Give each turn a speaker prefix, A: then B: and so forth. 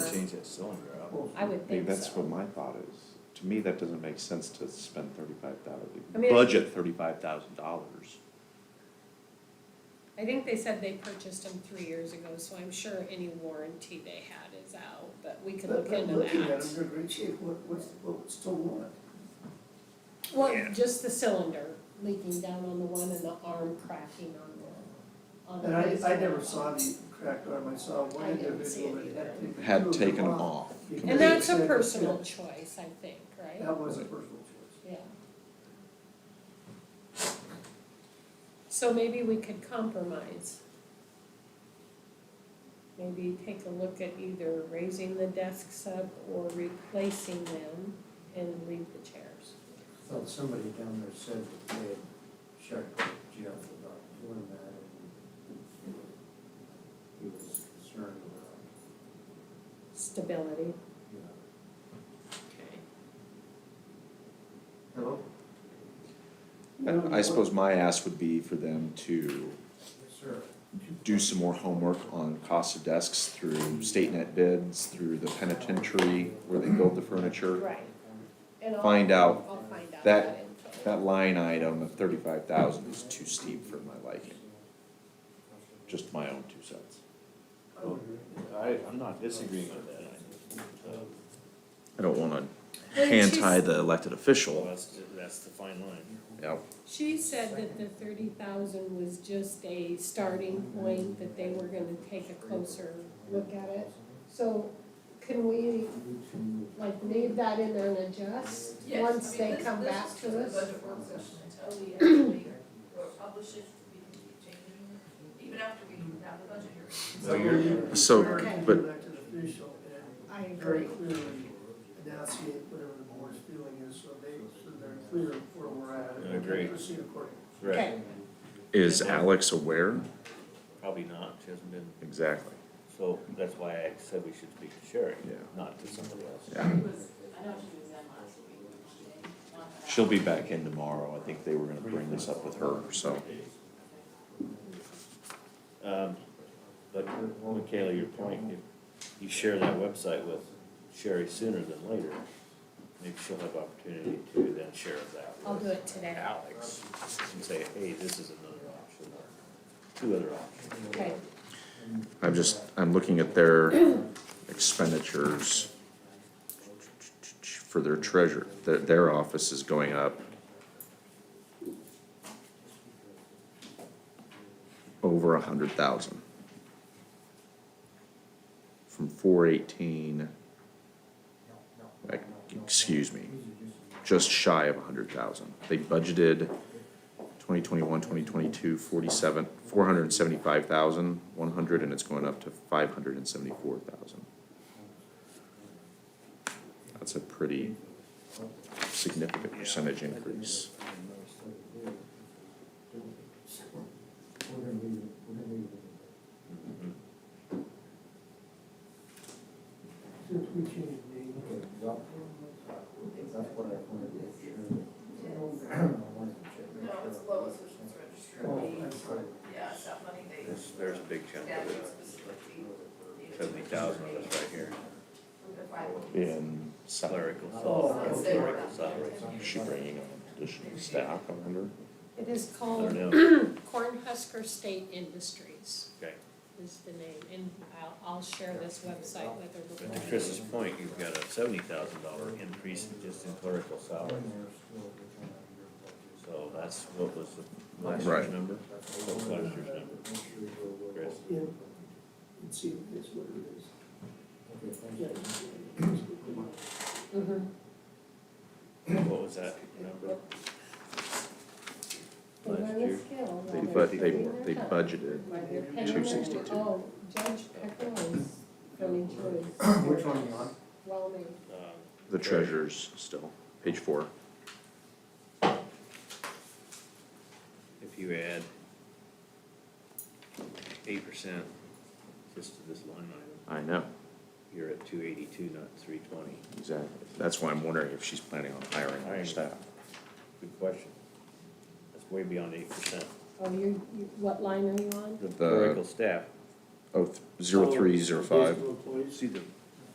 A: change that cylinder out.
B: I would
C: Maybe
B: think so.
C: that's what my thought is. To me, that doesn't make sense to spend thirty-five
B: I mean,
C: thousand,
B: I-
C: budget thirty-five thousand dollars.
B: I think they said they purchased them three years ago, so I'm sure any warranty they had is out, but we could
D: But
B: look
D: but
B: into
D: looking at
B: that.
D: them, they're great shape, what, what's, what's still want?
B: Well, just the cylinder leaking down on the one and the arm cracking on the,
D: And
B: on the.
D: I, I
B: base
D: never
B: one.
D: saw the cracked arm, I saw one
B: I didn't see
D: individual
B: it
D: that had taken. two
C: Had
D: of
C: taken them off.
B: And that's
D: Said
B: a
D: that-
B: personal choice, I think, right?
D: That was a personal choice.
B: Yeah. So maybe we could compromise. Maybe take a look at either raising the desks up or replacing them and leave the chairs.
E: Thought somebody down there said that they had checked with Jeff about doing that and he was concerned about,
B: Stability.
E: you know.
B: Okay.
E: Hello?
C: I I suppose my ask would be for them to
E: Yes, sir.
C: do some more homework on cost of desks through StateNet bids, through the penitentiary where they build the furniture.
B: Right. And I'll-
C: Find out
B: I'll find out
C: that-
B: info.
C: That line item of thirty-five thousand is too steep for my liking, just my own two cents.
D: I would agree.
A: I, Oh, I'm not disagreeing with that. I- uh,
C: I don't wanna
B: Well, she's-
C: the elected
A: Well,
C: official.
A: that's, that's the fine line.
C: Yep.
B: She said that the thirty thousand was just a starting point, that they were gonna take a closer look at it. So can we like leave that in there and adjust
F: Yes, I
B: once
F: mean,
B: they
F: this-
B: come
F: this
B: back
F: is
B: to
F: just a
B: us?
F: budget work session until we actually publish it, we can keep changing, it, even after we have the budget hearing.
D: So Oh, you're.
C: So, but-
D: Elected official
B: I
D: and very
B: agree.
D: clearly enunciate whatever the board's feeling is, so they, so they're clear where we're at. and
A: I agree.
D: Proceed accordingly.
B: Okay,
C: Is Alex aware?
A: Probably not, she hasn't been,
C: Exactly.
A: so that's why I said we should speak to Sherry,
C: Yeah.
A: not to somebody else.
C: Yeah.
F: I know she was in last week, she didn't.
C: She'll be back in tomorrow. I think they were gonna bring this up with her, so.
A: Um, but Michaela, your point, if you share that website with Sherry sooner than later, maybe she'll have opportunity to then share that
B: I'll do
A: with
B: it today.
A: Alex and say, hey, this is another option, or two other options.
B: Okay,
C: I'm just, I'm looking at their expenditures for their treasure, their, their office is going up over a hundred thousand. From four eighteen, like, excuse me, just shy of a hundred thousand. They budgeted 2021, 2022, 47, 475,100, and it's going up to 574,000. That's a pretty significant percentage increase.
E: We're gonna leave, it- we're gonna leave. it.
D: Since we changed the name,
E: Okay, well, That's what I wanted to make sure. I wanted to check, make
F: No,
E: sure.
F: it's Lois, which is registered,
E: Oh,
F: we,
E: I'm sorry.
F: yeah, it's that money they,
A: There's, there's a big chunk of
F: statute
A: it,
F: specifically. needed to
A: seventy thousand of this right here,
F: provide.
C: In salary,
A: clerical
D: Oh,
A: software,
D: okay.
A: clerical salary.
C: is she bringing on additional staff, I wonder?
B: it is
A: I don't
B: called
A: know,
B: Cornhusker State Industries
A: okay,
B: is the name, and I'll, I'll share this website with her before.
A: but to Chris's point, you've got a seventy thousand dollar increase in just in clerical salary, so that's what was the last year's
C: Right.
A: number? What was last year's number, Chris?
D: yeah, and see if it's what it is.
E: Okay, thank
D: Yeah,
E: you.
D: it's- it's-
B: Mhm.
A: What was that number?
B: They
A: Last
B: learn a
A: year,
B: skill
C: They,
B: while they're
C: but they,
B: doing their
C: they
B: job.
C: budgeted,
B: While they're paying their-
C: 262.
B: Oh, Judge Pickle is going to
E: Which one you on?
B: Wyoming.
A: Um,
C: the treasurer's still, page four.
A: if you add eight percent just to this line item,
C: I know,
A: you're at two eighty-two, not three twenty.
C: exactly. That's why I'm wondering if she's planning on hiring more staff.
A: Good question. That's way beyond eight percent.
B: Oh, you, you, what line are you on?
A: The
C: The-
A: clerical staff,
C: Oh, th- zero three, zero five.
D: Baseball employees.
A: see the